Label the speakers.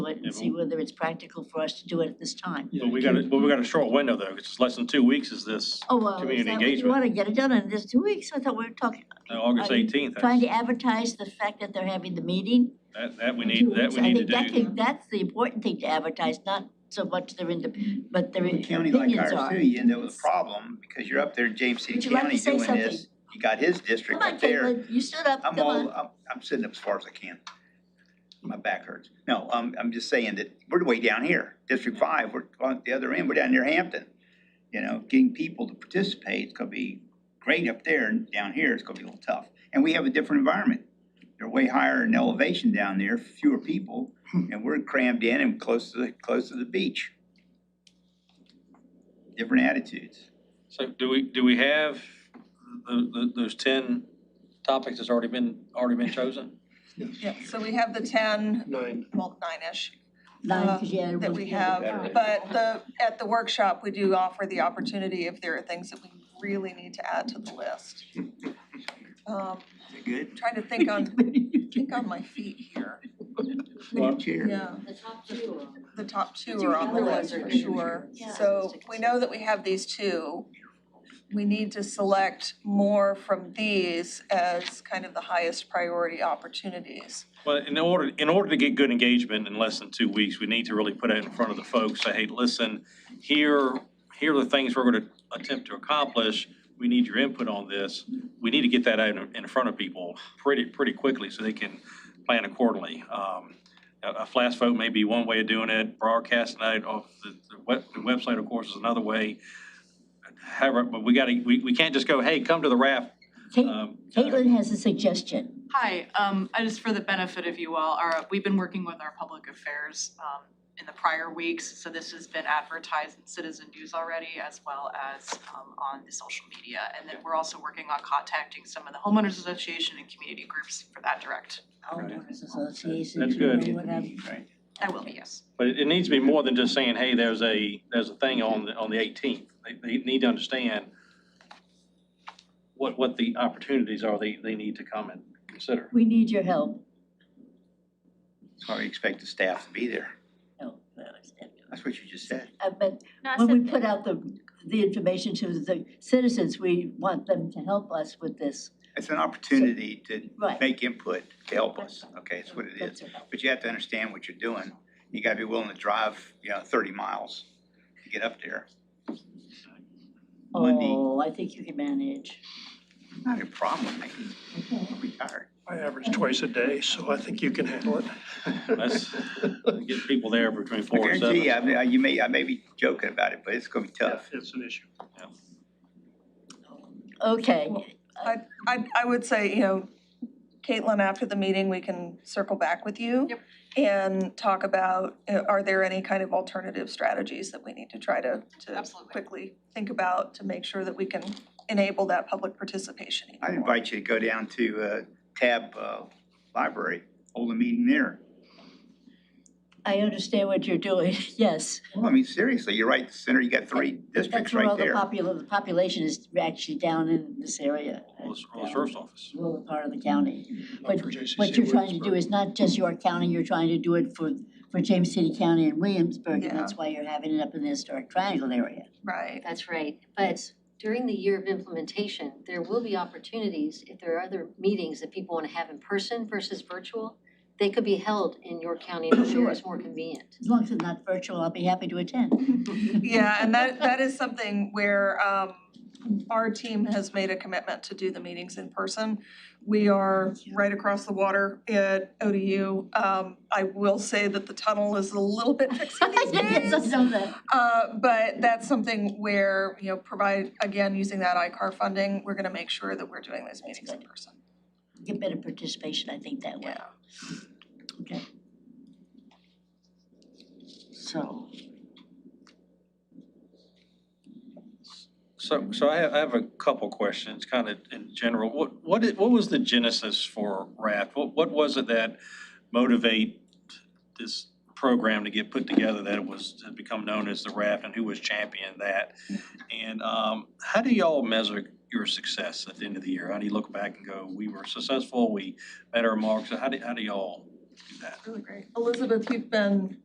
Speaker 1: and see whether it's practical for us to do it at this time.
Speaker 2: But we got a, but we got a short window though, because it's less than two weeks is this,
Speaker 1: Oh, well, is
Speaker 2: Community
Speaker 1: that what you
Speaker 2: engagement.
Speaker 1: wanna get it done in this two weeks? I thought we were talking,
Speaker 2: uh, August
Speaker 1: Are you
Speaker 2: eighteenth.
Speaker 1: trying to advertise the fact that they're having the meeting.
Speaker 2: That, that we
Speaker 1: in
Speaker 2: need,
Speaker 1: two
Speaker 2: that
Speaker 1: weeks.
Speaker 2: we need to
Speaker 1: I think that
Speaker 2: do.
Speaker 1: can- that's the important thing to advertise, not so much their ind, but their
Speaker 3: With a
Speaker 1: opinions are.
Speaker 3: county like ours too, you end up with a problem because you're up there, in James City
Speaker 1: Would you like
Speaker 3: County
Speaker 1: to say
Speaker 3: doing this. You got his district
Speaker 1: Come on,
Speaker 3: up there.
Speaker 1: Caitlin, you stood up,
Speaker 3: I'm
Speaker 1: come on.
Speaker 3: all, I'm, I'm sitting up as far as I can. My back hurts. No, I'm, I'm just saying that we're way down here, District Five, we're on the other end, we're down near Hampton. You know, getting people to participate is gonna be great up there and down here it's gonna be a little tough. And we have a different environment. They're way higher in elevation down there, fewer people,
Speaker 1: Hmm.
Speaker 3: and we're crammed in and close to the, close to the beach. Different attitudes.
Speaker 2: So do we, do we have the, the, those ten topics that's already been, already been chosen?
Speaker 4: Yeah, so we have the ten,
Speaker 5: Nine.
Speaker 4: well, nine-ish
Speaker 1: Nine,
Speaker 4: uh,
Speaker 1: 'cause you had
Speaker 4: that
Speaker 1: one
Speaker 4: we
Speaker 1: for the
Speaker 4: have.
Speaker 1: veteran.
Speaker 4: But the, at the workshop, we do offer the opportunity if there are things that we really need to add to the list. Um,
Speaker 3: Is it good?
Speaker 4: Trying to think on, think on my feet here.
Speaker 3: Chair.
Speaker 4: Yeah,
Speaker 6: The top two are on.
Speaker 4: the top two
Speaker 6: These
Speaker 4: are
Speaker 6: are
Speaker 4: on the
Speaker 6: the
Speaker 4: list
Speaker 6: ones
Speaker 4: for
Speaker 6: that are
Speaker 4: sure.
Speaker 1: Yeah.
Speaker 4: So we know that we have these two. We need to select more from these as kind of the highest priority opportunities.
Speaker 2: Well, in order, in order to get good engagement in less than two weeks, we need to really put it in front of the folks, say, hey, listen, here, here are the things we're gonna attempt to accomplish, we need your input on this. We need to get that out in, in front of people pretty, pretty quickly so they can plan accordingly. Um, A, a flash vote may be one way of doing it, broadcasting it off the, the web, the website, of course, is another way. However, but we gotta, we, we can't just go, hey, come to the raft.
Speaker 1: Caitlin,
Speaker 2: um,
Speaker 1: Caitlin has a suggestion.
Speaker 7: Hi, um, I just for the benefit of you all, our, we've been working with our public affairs, um, in the prior weeks, so this has been advertised in Citizen News already as well as, um, on the social media. And then we're also working on contacting some of the homeowners association and community groups for that direct.
Speaker 1: Homeowners Association.
Speaker 2: That's good.
Speaker 1: you know, whatever.
Speaker 7: I will be, yes.
Speaker 2: But it, it needs to be more than just saying, hey, there's a, there's a thing on the, on the eighteenth. They, they need to understand what, what the opportunities are they, they need to come and consider.
Speaker 1: We need your help.
Speaker 3: So I expect the staff to be there.
Speaker 1: No, that was it.
Speaker 3: That's what you just said.
Speaker 1: Uh, But
Speaker 6: No, I
Speaker 1: when we
Speaker 6: said
Speaker 1: put out the, the information to the citizens, we want them to help us with this.
Speaker 3: It's an opportunity to
Speaker 1: Right.
Speaker 3: make input to help us, okay, that's what it is.
Speaker 1: That's all.
Speaker 3: But you have to understand what you're doing. You gotta be willing to drive, you know, thirty miles to get up there. Monday.
Speaker 1: Oh, I think you can manage.
Speaker 3: Not a problem with me, I'm retired.
Speaker 5: I average twice a day, so I think you can handle it.
Speaker 2: Let's get people there between
Speaker 3: I
Speaker 2: four and
Speaker 3: guarantee you,
Speaker 2: seven.
Speaker 3: I mean, I- you may, I may be joking about it, but it's gonna be tough.
Speaker 5: It's an issue.
Speaker 4: Well,
Speaker 1: Okay,
Speaker 4: I, I would say, you know, Caitlin, after the meeting, we can circle back with you.
Speaker 7: Yep.
Speaker 4: And talk about, you know, are there any kind of alternative strategies that we need to try to, to
Speaker 7: Absolutely.
Speaker 4: quickly think about to make sure that we can enable that public participation even
Speaker 3: I'd
Speaker 4: more?
Speaker 3: invite you to go down to, uh, Tab, uh, Library, hold a meeting there.
Speaker 1: I understand what you're doing, yes.
Speaker 3: Well, I mean, seriously, you're right, in the center, you got three districts
Speaker 1: That's where all
Speaker 3: right
Speaker 1: the
Speaker 3: there.
Speaker 1: popula- the population is actually down in this area.
Speaker 2: Well, it's- well, the sheriff's office.
Speaker 1: Lower part of the county.
Speaker 5: Not for
Speaker 1: What
Speaker 5: JCC
Speaker 1: you're trying to do
Speaker 5: Williamsburg.
Speaker 1: is not just York County, you're trying to do it for, for James City County and Williamsburg, and
Speaker 4: Yeah.
Speaker 1: that's why you're having it up in the historic triangle area.
Speaker 4: Right,
Speaker 6: That's right, but during the year of implementation, there will be opportunities, if there are other meetings that people wanna have in person versus virtual, they could be held in your county, and I'm sure it's more convenient.
Speaker 1: As long as it's not virtual, I'll be happy to attend.
Speaker 4: yeah, and that, that is something where, um, our team has made a commitment to do the meetings in person. We are right across the water at ODU. Um, I will say that the tunnel is a little bit fixing these
Speaker 1: Yes, I
Speaker 4: days.
Speaker 1: know that.
Speaker 4: Uh, but that's something where, you know, provide, again, using that ICAR funding, we're gonna make sure that we're doing those meetings in person.
Speaker 1: Get better participation, I think, that way. Okay. So,
Speaker 2: So, so I have, I have a couple questions, kind of in general. What, what, i- what was the genesis for RAFT? What, what was it that motivate this program to get put together that it was, to become known as the RAFT and who was championing that? And, um, how do y'all measure your success at the end of the year? How do you look back and go, we were successful, we met our marks? How do, how do y'all do that?
Speaker 4: Really great. Elizabeth, you've been